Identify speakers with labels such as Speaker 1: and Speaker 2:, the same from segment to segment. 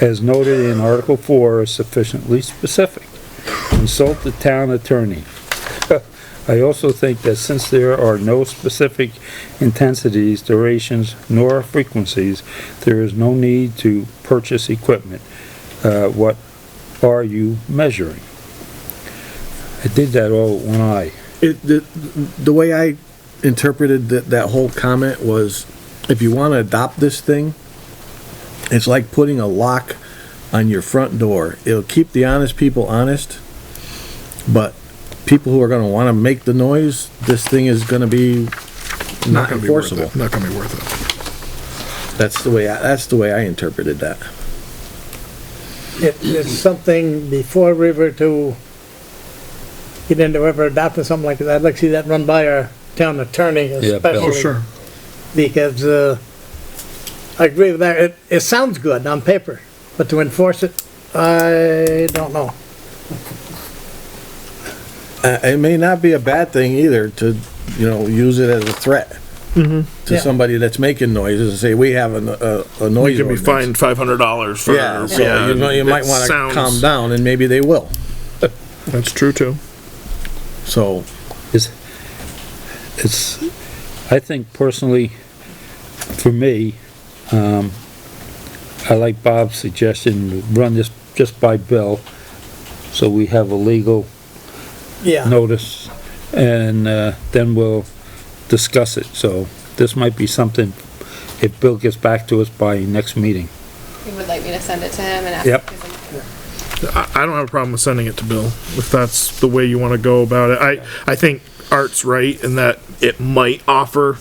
Speaker 1: as noted in Article 4, is sufficiently specific. Consult the town attorney. I also think that since there are no specific intensities, durations, nor frequencies, there is no need to purchase equipment. Uh, what are you measuring? I did that all with one eye.
Speaker 2: It, the, the way I interpreted that, that whole comment was, if you want to adopt this thing, it's like putting a lock on your front door. It'll keep the honest people honest, but people who are going to want to make the noise, this thing is going to be not
Speaker 3: gonna be worth
Speaker 2: enforceable.
Speaker 3: it. Not gonna be worth it.
Speaker 2: That's the way, I- that's the way I interpreted that.
Speaker 3: Uh,
Speaker 4: It, it's something before we were to get into ever adopting something like that, I'd like to see that run by our town attorney
Speaker 1: Yeah, Bill.
Speaker 4: especially. Because, uh, I agree with that, it, it sounds good on paper, but to enforce it, I don't know.
Speaker 2: Uh, it may not be a bad thing either to, you know, use it as a threat to
Speaker 3: Mm-hmm.
Speaker 4: Yeah.
Speaker 2: somebody that's making noises and say, we have a, a, a noise
Speaker 3: You can be
Speaker 2: ordinance.
Speaker 3: fined five hundred dollars for.
Speaker 2: Yeah, so you know, you might
Speaker 3: it
Speaker 2: wanna
Speaker 3: sounds-
Speaker 2: calm down and maybe they will,
Speaker 3: That's true too.
Speaker 2: so.
Speaker 1: It's, it's, I think personally, for me, um, I like Bob's suggestion, run this just by Bill, so we have a legal
Speaker 4: Yeah,
Speaker 1: notice, and, uh, then we'll discuss it, so this might be something, if Bill gets back to us by next meeting.
Speaker 5: You would like me to send it to him and ask?
Speaker 1: Yep.
Speaker 5: him?
Speaker 3: I, I don't have a problem with sending it to Bill, if that's the way you wanna go about it. I, I think Art's right in that it might offer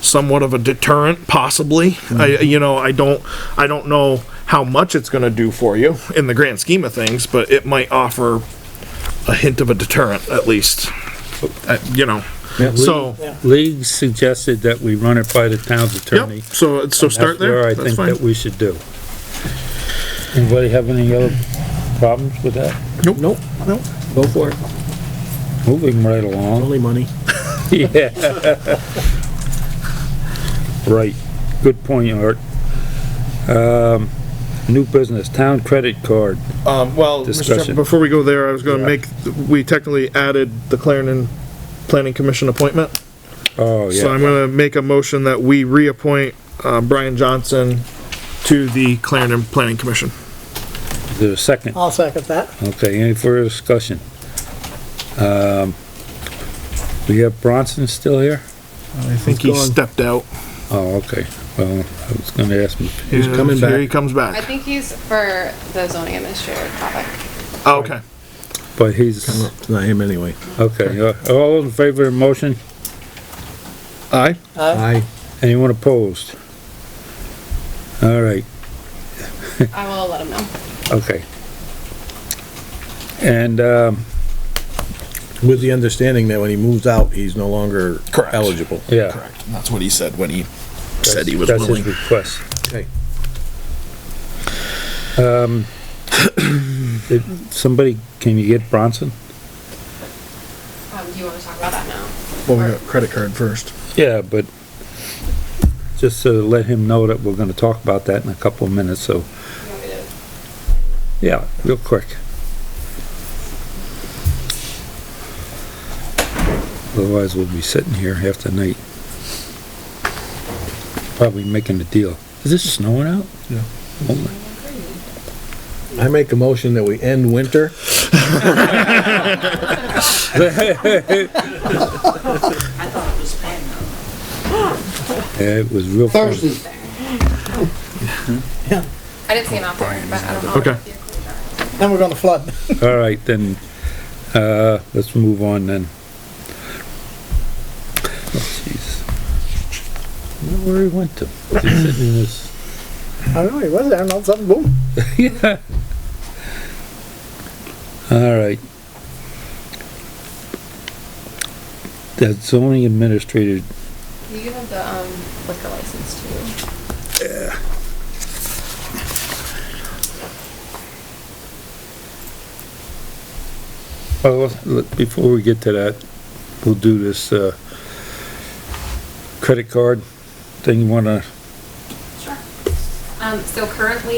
Speaker 3: somewhat of a deterrent, possibly. I, you know, I don't, I don't know how much it's gonna do for you in the grand scheme of things, but it might offer a hint of a deterrent, at least. Uh, you know, so,
Speaker 1: League suggested that we run it by the town's attorney.
Speaker 3: yep, so, so start
Speaker 1: That's where
Speaker 3: there,
Speaker 1: I
Speaker 3: that's
Speaker 1: think
Speaker 3: fine.
Speaker 1: that we should do. Anybody have any other problems with that?
Speaker 2: Nope, nope. Go for it,
Speaker 1: Moving right along.
Speaker 2: only money.
Speaker 1: Yeah. Right, good point, Art. Um, new business, town credit card.
Speaker 3: Um, well, Mr. Chairman,
Speaker 1: Discussion.
Speaker 3: before we go there, I was gonna make, we technically added the Clarendon Planning Commission appointment.
Speaker 1: Oh,
Speaker 3: So
Speaker 1: yeah,
Speaker 3: I'm gonna make a motion that we reappoint, uh, Brian Johnson to the Clarendon Planning Commission.
Speaker 1: there's a second.
Speaker 4: I'll second that.
Speaker 1: Okay, any further discussion? Um, we have Bronson still here?
Speaker 3: I think he stepped out.
Speaker 1: Oh, okay, well, I was gonna ask him.
Speaker 2: He's
Speaker 3: Yeah,
Speaker 2: coming
Speaker 3: Here
Speaker 2: back.
Speaker 3: he comes
Speaker 5: I
Speaker 3: back.
Speaker 5: think he's for the zoning administrator topic.
Speaker 3: Oh, Okay.
Speaker 1: but he's,
Speaker 2: It's not him anyway.
Speaker 1: okay, uh, all in favor of the motion?
Speaker 3: Aye.
Speaker 2: I,
Speaker 1: Anyone opposed? All right,
Speaker 5: I will let him know.
Speaker 1: okay. And, um,
Speaker 2: with the understanding that when he moves out, he's no longer
Speaker 3: Correct.
Speaker 2: eligible.
Speaker 1: yeah.
Speaker 3: Correct. That's what he said when he said he was
Speaker 1: That's his
Speaker 3: willing.
Speaker 1: request.
Speaker 2: Okay.
Speaker 1: Um, did somebody, can you get Bronson?
Speaker 5: Um, do you wanna talk about that now?
Speaker 3: Well, we got credit card first.
Speaker 1: Yeah, but just to let him know that we're gonna talk about that in a couple of minutes, so,
Speaker 5: You want me to-
Speaker 1: yeah, real quick. Otherwise, we'll be sitting here half the night. Probably making a deal. Is this snowing out?
Speaker 3: Yeah.
Speaker 1: Hold on.
Speaker 2: I make a motion that we end winter.
Speaker 1: Yeah, it was real. close.
Speaker 5: I didn't see an offer, but I don't know.
Speaker 3: Okay.
Speaker 4: Then we're gonna flood.
Speaker 1: All right, then, uh, let's move on then. Oh, jeez. I don't know Where he went to? Is he sitting in his-
Speaker 4: I don't know, he was there, and all of a sudden, boom.
Speaker 1: All right. That zoning administrator,
Speaker 5: You can have the, um, liquor license too.
Speaker 1: oh, look, before we get to that, we'll do this, uh, credit card thing. You wanna
Speaker 5: Sure. Um, so currently